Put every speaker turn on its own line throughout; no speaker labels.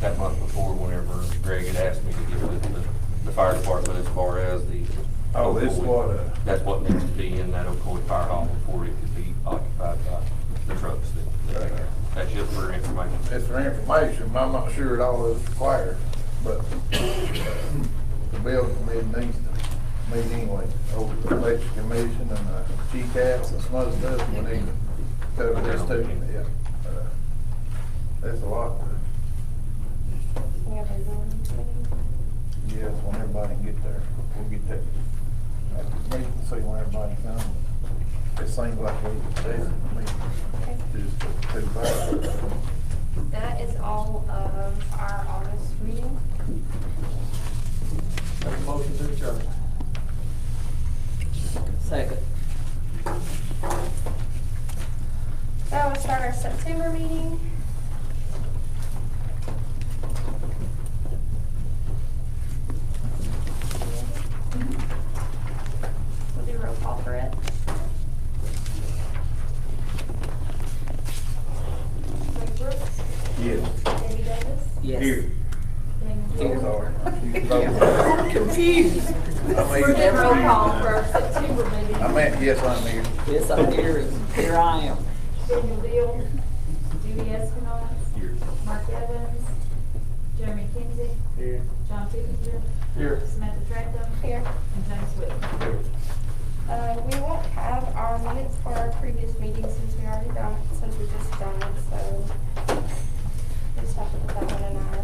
that month before, whenever Greg had asked me to get with the, the fire department as far as the.
Oh, this
opioid.
what, uh,
That's what needs to be in that Ocoee Fire Hall before it could be occupied by the trucks that, that are there. That's just for information.
It's for information, I'm not sure it all is required, but the building committee needs to meet anyway. Over the election commission and the GCAS and some other stuff, we need to cover this too, yeah. Uh, There's a lot to, yes, when everybody can get there, we'll get that. We can see when everybody comes. It seems like we, it's, I mean, just too bad.
That is all of our August meeting.
Make a motion to adjourn.
Second.
That will start our September meeting. We'll do roll call for it.
Mike Brooks,
Yes.
Debbie Davis,
Yes.
Dan
Those
Moore.
are.
Confused.
I
We're doing
mean-
roll call for our September meeting.
I meant, yes, I'm here.
Yes, I'm here, and here I am.
Daniel Deal, Judy Espinola,
Here.
Mark Evans, Jeremy Kinsey,
Here.
John Pipinger,
Here.
Samantha Trentham,
Here.
and James Whitmore.
Uh, we won't have our minutes for our previous meeting since we already done, since we just done it, so. we Just have to put that one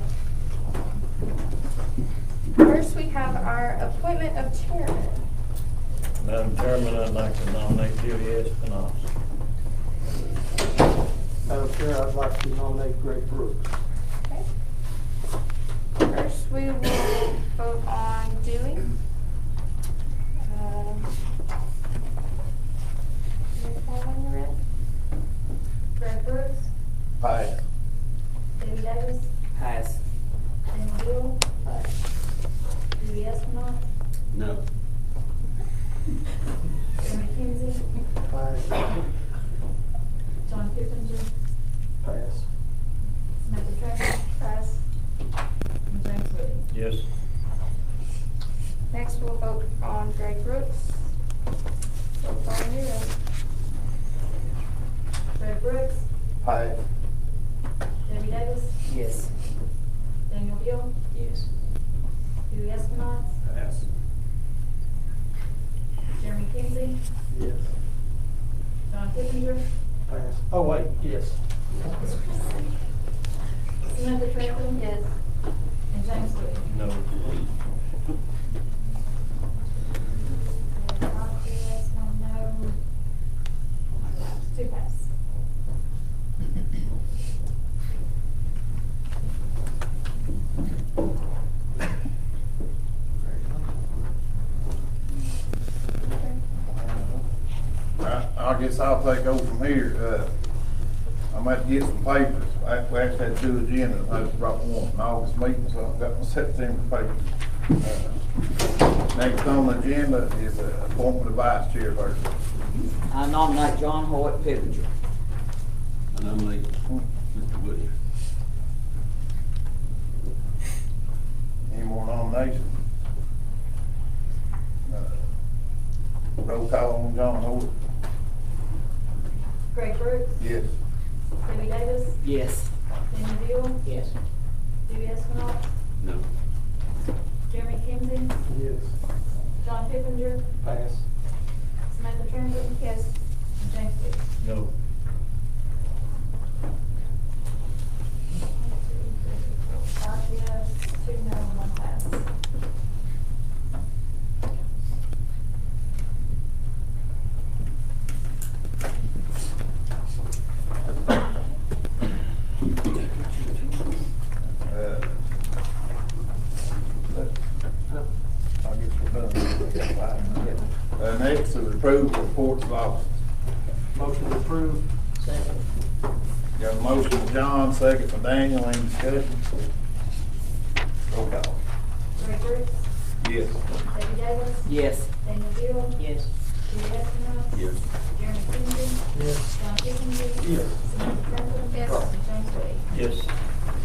in our. First, we have our appointment of chairman.
Madam Chairman, I'd like to nominate Judy Espinoza.
Madam Chair, I'd like to nominate Greg Brooks.
Okay. First, we will vote on Dewey. Um, Roll call when you're ready.
Greg Brooks,
Aye.
Debbie Davis,
Pass.
Daniel Deal, Judy Espinola,
No.
Jeremy Kinsey,
Aye.
John Pipinger,
Pass.
Samantha Trentham,
Pass.
and James Whitmore.
Yes.
Next, we'll vote on Greg Brooks. Roll call when you're ready.
Greg Brooks,
Aye.
Debbie Davis,
Yes.
Daniel Deal,
Yes.
Judy Espinola,
Pass.
Jeremy Kinsey,
Yes.
John Pipinger,
Pass. Oh, wait, yes.
Samantha Trentham,
Yes.
and James Whitmore.
No.
Yes, one no. Two pass.
I, I guess I'll take over from here, uh, I'm about to get some papers, I actually had two agendas, I just brought one, from August meeting, so I've got my September papers. Uh, Next on the agenda is uh, appointment of vice chair person.
I nominate John Hoyt Pippinger.
I nominate Mr. Woodyer.
Any more nominations? Uh, Roll call on John Holt.
Greg Brooks,
Yes.
Debbie Davis,
Yes.
Daniel Deal,
Yes.
Dewey Estimov,
No.
Jeremy Kinsey,
Yes.
John Pippinger,
Pass.
Samantha Trentham,
Yes.
and James Wade.
No.
One, two, three, four, Five yes, two no, one pass.
Uh, I guess we're done. Uh, next is approval of reports of officers.
Motion approved. Second.
Got a motion from John, second from Daniel, any discussion? Roll call.
Greg Brooks,
Yes.
Debbie Davis,
Yes.
Daniel Deal,
Yes.
Dewey Estimov,
Yes.
Jeremy Kinsey,
Yes.
John Pippinger,
Yes.
Samantha Trentham,
Yes.
and James Wade.
Yes.